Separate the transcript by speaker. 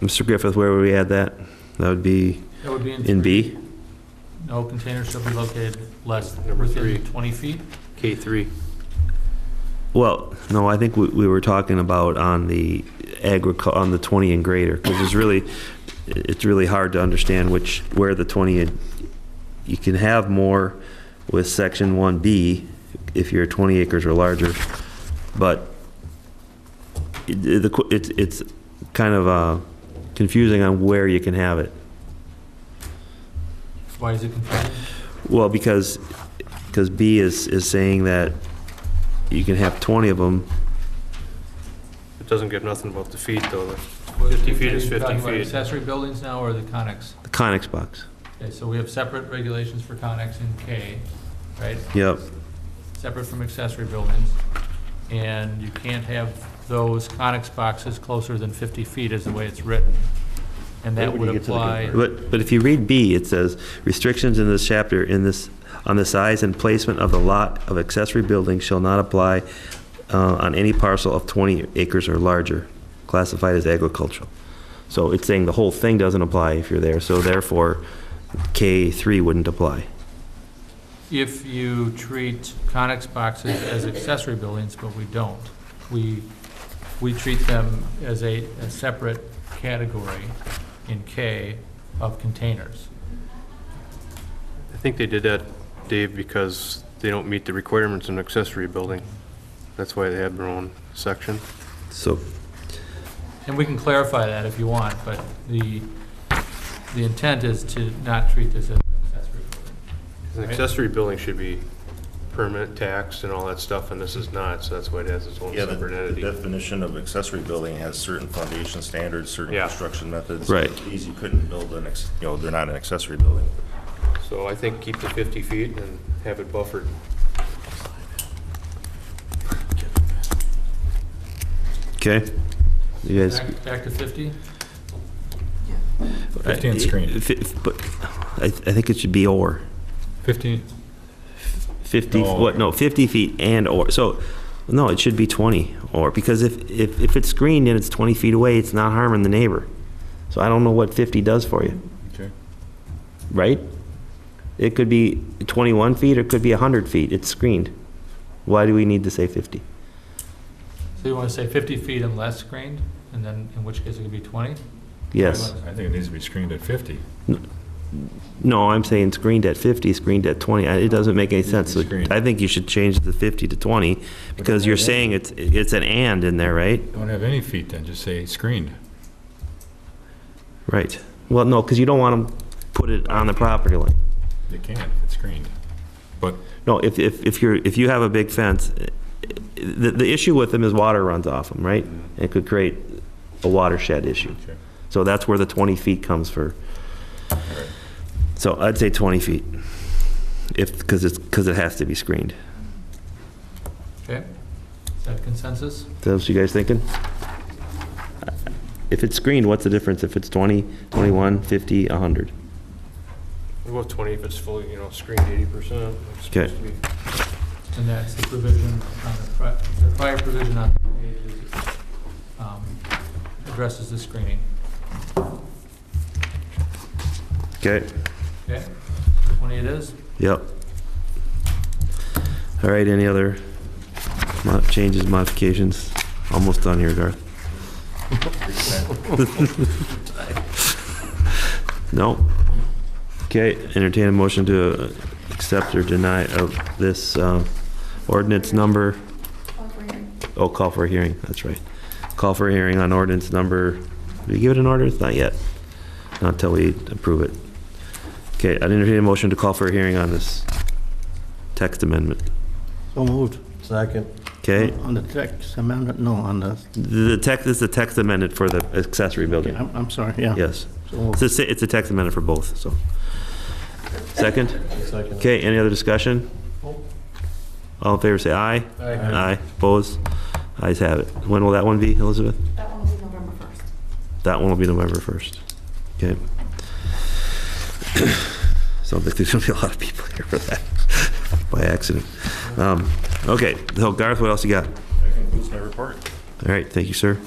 Speaker 1: Mr. Griffith, where would we add that? That would be
Speaker 2: That would be in.
Speaker 1: in B?
Speaker 2: No container shall be located less
Speaker 3: Number three.
Speaker 2: within 20 feet.
Speaker 3: K three.
Speaker 1: Well, no, I think we, we were talking about on the agricul, on the 20 and greater, because it's really, it's really hard to understand which, where the 20, and- you can have more with section 1B if you're 20 acres or larger, but it- it- the qu- it's, it's kind of uh, confusing on where you can have it.
Speaker 2: Why is it confusing?
Speaker 1: Well, because, because B is, is saying that you can have 20 of them,
Speaker 3: It doesn't give nothing about the feet though. like- 50
Speaker 2: 50
Speaker 3: feet is 50 feet.
Speaker 2: Accessory buildings now or the Conex?
Speaker 1: the Conex box.
Speaker 2: Okay, so we have separate regulations for Conex and K, right?
Speaker 1: Yep.
Speaker 2: Separate from accessory buildings. And you can't have those Conex boxes closer than 50 feet is the way it's written. And that
Speaker 4: Wait,
Speaker 2: would
Speaker 4: when you get to the
Speaker 2: apply,
Speaker 1: But, but if you read B, it says, restrictions in this chapter in this, on the size and placement of the lot of accessory buildings shall not apply uh, on any parcel of 20 acres or larger, classified as agricultural. So it's saying the whole thing doesn't apply if you're there, so therefore K3 wouldn't apply.
Speaker 2: if you treat Conex boxes as accessory buildings, but we don't. We, we treat them as a, a separate category in K of containers.
Speaker 3: I think they did that, Dave, because they don't meet the requirements in accessory building. That's why they have their own section.
Speaker 1: So,
Speaker 2: And we can clarify that if you want, but the, the intent is to not treat this as an accessory building.
Speaker 3: 'Cause An
Speaker 2: Right.
Speaker 3: accessory building should be permanent taxed and all that stuff, and this is not, so that's why it has its own
Speaker 4: Yeah, the
Speaker 3: separate
Speaker 4: the
Speaker 3: entity.
Speaker 4: definition of accessory building has certain foundation standards, certain
Speaker 3: Yeah.
Speaker 4: construction methods.
Speaker 1: Right.
Speaker 4: These you couldn't build an, ex- you know, they're not an accessory building.
Speaker 3: So I think keep the 50 feet and have it buffered.
Speaker 1: okay? You guys?
Speaker 2: Back- Back to 50?
Speaker 5: 15 screen.
Speaker 1: Fi- But I, th- I think it should be or.
Speaker 5: 15,
Speaker 1: 50,
Speaker 4: No.
Speaker 1: what, no, 50 feet and or, so, no, it should be 20 or, because if, if, if it's screened and it's 20 feet away, it's not harming the neighbor. So I don't know what 50 does for you,
Speaker 5: okay.
Speaker 1: right? It could be 21 feet or it could be 100 feet, it's screened. Why do we need to say 50?
Speaker 2: So you want to say 50 feet and less screened, and then, in which case it could be 20?
Speaker 1: Yes.
Speaker 5: I think it needs to be screened at 50.
Speaker 1: No, I'm saying screened at 50, screened at 20, I- it doesn't make any sense. So
Speaker 5: Screened.
Speaker 1: I think you should change the 50 to 20 because you're saying it's, it's an and in there, right?
Speaker 5: Don't have any feet then, just say screened.
Speaker 1: Right. Well, no, because you don't want to put it on the property line.
Speaker 5: You can if it's screened. But
Speaker 1: No, if, if, if you're, if you have a big fence, eh, the, the issue with them is water runs off them, right? It could create a watershed issue.
Speaker 5: Okay.
Speaker 1: So that's where the 20 feet comes for.
Speaker 5: right.
Speaker 1: So I'd say 20 feet, if, because it's, because it has to be screened.
Speaker 2: Okay? Is that consensus?
Speaker 1: Is that what you guys thinking? If it's screened, what's the difference if it's 20, 21, 50, 100?
Speaker 3: About 20 if it's fully, you know, screened 80%. like it's
Speaker 1: Okay.
Speaker 3: supposed to be.
Speaker 2: And that's the provision on the, pri- the prior provision on the page is, um, addresses the screening.
Speaker 1: Okay.
Speaker 2: Okay? 20 it is?
Speaker 1: Yep. All right, any other mo- changes, modifications? Almost done here, Garth. No? Okay, entertain a motion to uh, accept or deny of this uh, ordinance number, oh, call for a hearing, that's right. Call for a hearing on ordinance number, did we give it an order? Not yet. Not until we approve it. Okay, I'd entertain a motion to call for a hearing on this text amendment.
Speaker 6: So moved. Second.
Speaker 1: Okay,
Speaker 6: On the text amendment, no, on the,
Speaker 1: the text is the text amendment for the accessory building.
Speaker 6: I'm, I'm sorry, yeah.
Speaker 1: Yes,
Speaker 6: So
Speaker 1: it's
Speaker 6: moved.
Speaker 1: a, si- it's a text amendment for both, so. Second?
Speaker 6: Second.
Speaker 1: Okay, any other discussion? All in favor, say aye. Aye, opposed? Ayes have it. When will that one be, Elizabeth?
Speaker 7: That one will be November 1st.
Speaker 1: That one will be November 1st. Okay. Sounds like there's going to be a lot of people here for that by accident. Um, Okay, so Garth, what else you got?
Speaker 4: That concludes my report.
Speaker 1: All right, thank you, sir.